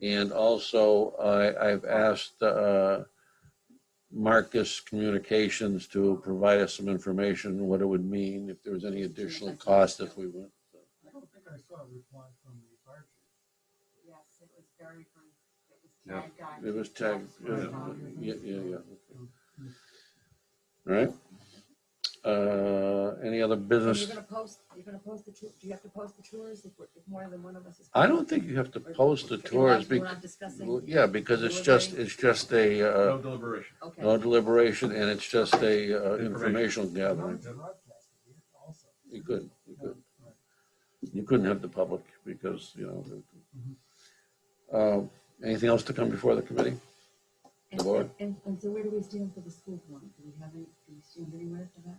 And also, I, I've asked uh, Marcus Communications to provide us some information, what it would mean, if there was any additional cost if we went. I don't think I saw a reply from the fire chief. Yes, it was very brief. It was Yeah. tagged on. It was tagged, yeah, yeah, yeah, yeah. All right. Uh, Any other And business? You're gonna post, you're gonna post the tour, do you have to post the tours if, we're- if more than one of us is? I don't think you have to post the If not, tours, We're bec- not discussing, yeah, because it's just, it's just a, uh, No deliberation. okay. no deliberation, and it's just a uh, Information. informational gathering. You couldn't, you couldn't. You couldn't have the public because, you know. the- Uh, Anything else to come before the committee? And- Laura? And, and so where do we stand for the school form? Do we have any, do we stand anywhere for that?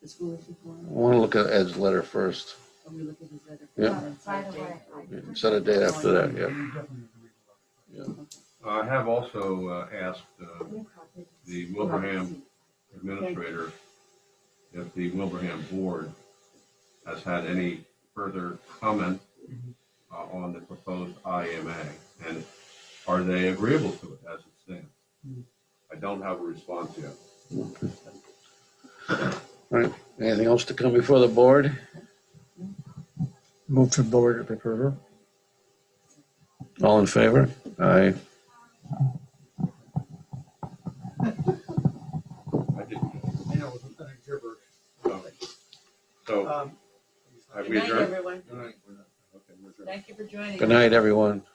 The school issue I form, want to look at Ed's letter first, are we looking at his other? Yeah. By the way, I- Yeah, set a date after that, yeah. I have also uh, asked uh, the Wilbraham Wilbraham. administrator if the Wilbraham board has had any further comment uh, on the proposed IMA, and are they agreeable to it as it stands? I don't have a response yet. Anything else to come before the board? Move to board approval. All in favor? Aye. I didn't. Yeah, it was a Um, gibberish. so- So Um, have Good we night, adjourned? everyone. Good night. We're not- okay, we're adjourned. Thank you for joining. Good night, everyone.